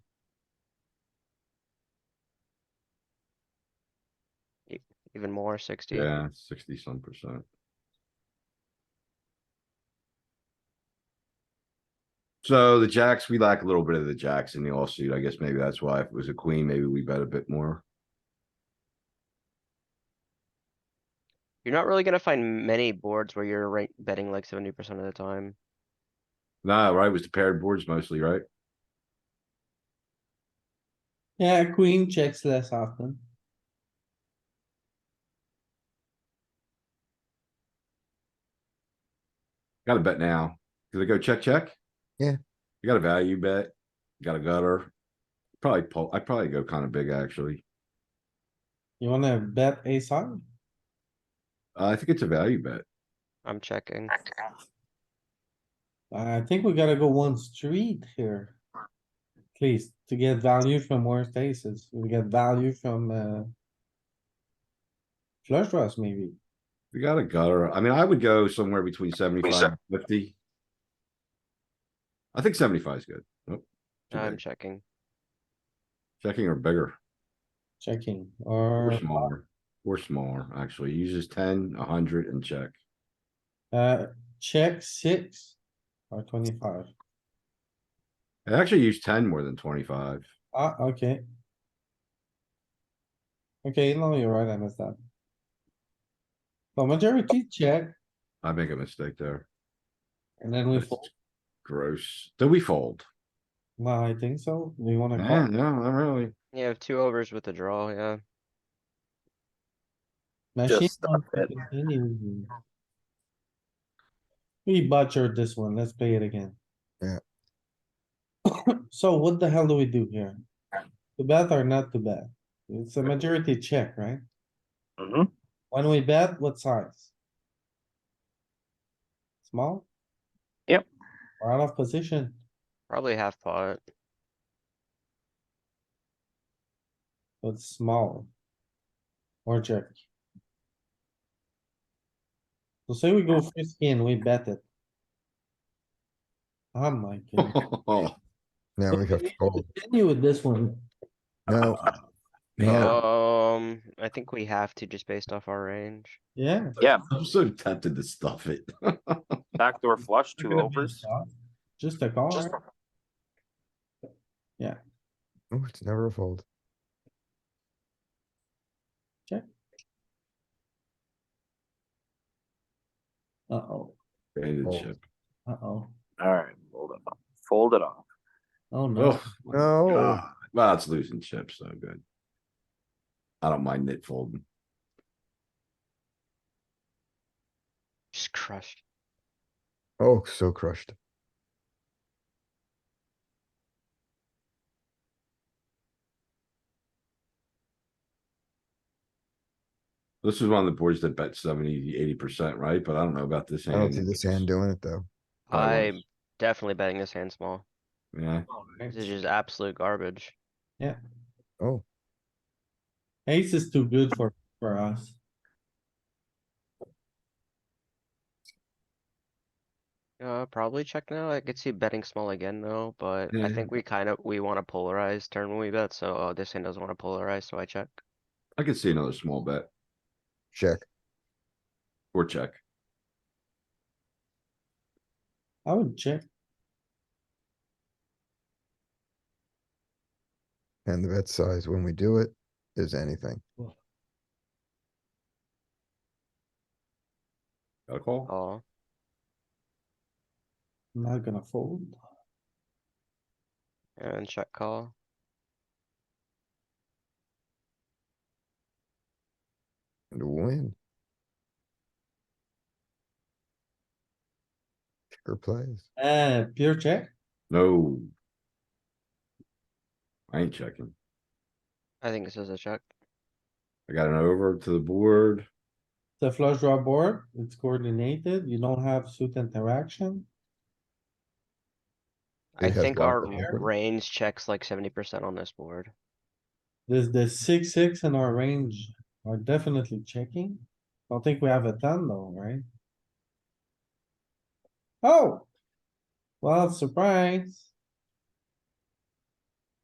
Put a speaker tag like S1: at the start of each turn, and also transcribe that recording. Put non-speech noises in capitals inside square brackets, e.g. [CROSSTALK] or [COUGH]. S1: even more, sixty.
S2: Yeah, sixty some percent. So the jacks, we lack a little bit of the jacks in the offsuit. I guess maybe that's why if it was a queen, maybe we bet a bit more.
S1: You're not really gonna find many boards where you're right betting like seventy percent of the time.
S2: Nah, right, it was the paired boards mostly, right?
S3: Yeah, queen checks less often.
S2: Gotta bet now. Did I go check, check?
S4: Yeah.
S2: You got a value bet, You got a gutter. Probably pull, I'd probably go kind of big, actually.
S3: You wanna bet ace high?
S2: Uh, I think it's a value bet.
S1: I'm checking.
S3: I think we gotta go one street here. At least to get value from worse aces. We get value from, uh. Flush draws maybe.
S2: We got a gutter. I mean, I would go somewhere between seventy-five and fifty. I think seventy-five is good. Nope. too
S1: I'm
S2: big.
S1: checking.
S2: Checking or bigger,
S3: Checking
S2: or
S3: or,
S2: smaller, or smaller, actually. Uses ten, a hundred and check.
S3: uh, check six or twenty-five.
S2: I actually use ten more than twenty-five.
S3: Ah, okay. Okay, no, you're right, I missed that. But majority check
S2: I make a mistake there.
S3: and then we
S2: That's
S3: fold.
S2: Gross. Did we fold?
S3: No, I think so. Do you wanna
S2: Nah,
S3: call?
S2: No, not really.
S1: You have two overs with a draw, yeah.
S3: Machine wants to continue. We butchered this one, let's play it again.
S4: Yeah.
S3: [COUGHS] So what the hell do we do here? To bet or not to bet? It's a majority check, right? When we bet, what size? Small?
S5: Yep.
S3: We're out of position.
S1: Probably half pot.
S3: So It's small. Or jerk. So say we go frisky and we bet it. Oh
S5: [LAUGHS]
S3: my god.
S2: [LAUGHS]
S4: Now we have to fold.
S3: Continue with this one.
S4: No. Yeah,
S1: Um, I think we have to just based off our range.
S3: Yeah.
S2: I'm so tempted to stuff it. [LAUGHS]
S5: Backdoor flush,
S3: we're
S5: two
S3: gonna be
S5: overs.
S3: soft. Just a call,
S5: Just
S3: right?
S4: Ooh, it's never a fold.
S3: Uh-oh,
S2: Baited
S4: Fold.
S2: chip.
S3: uh-oh.
S5: Alright, fold it off. Fold it off.
S3: Oh no,
S2: Oh, my
S4: No,
S2: God. Well, it's losing chips, so good. I don't mind it folding.
S1: Just crushed.
S4: oh, so crushed.
S2: This is one of the boards that bet 70, 80 percent, right? But I don't know about this
S4: I
S2: hand.
S4: don't see this hand doing it though.
S2: Probably
S1: I'm definitely betting this hand small.
S2: Yeah,
S1: This is just absolute garbage.
S4: Oh,
S3: ace is too good for, for us.
S1: Uh, probably check now. I could see betting small again though, but I
S2: Yeah.
S1: think we kind of, we want to polarize turn when we bet, so uh, this hand doesn't want to polarize, so I check.
S2: I could see another small bet
S4: check.
S2: or check.
S3: I would check.
S4: And the bet size when we do it is anything.
S2: Got a call?
S1: Oh,
S3: I'm not gonna fold.
S1: and check call.
S4: And a win. Kicker plays.
S3: Uh, pure check?
S2: No. I ain't checking.
S1: I think this is a check.
S2: I got an over to the board.
S3: The flush draw board, it's coordinated, you don't have suit interaction.
S1: I
S4: It has
S1: think
S4: lots
S1: our
S4: of equity.
S1: range checks like seventy percent on this board.
S3: There's the six, six in our range are definitely checking. Don't think we have a ton though, right? Oh! Well, surprise.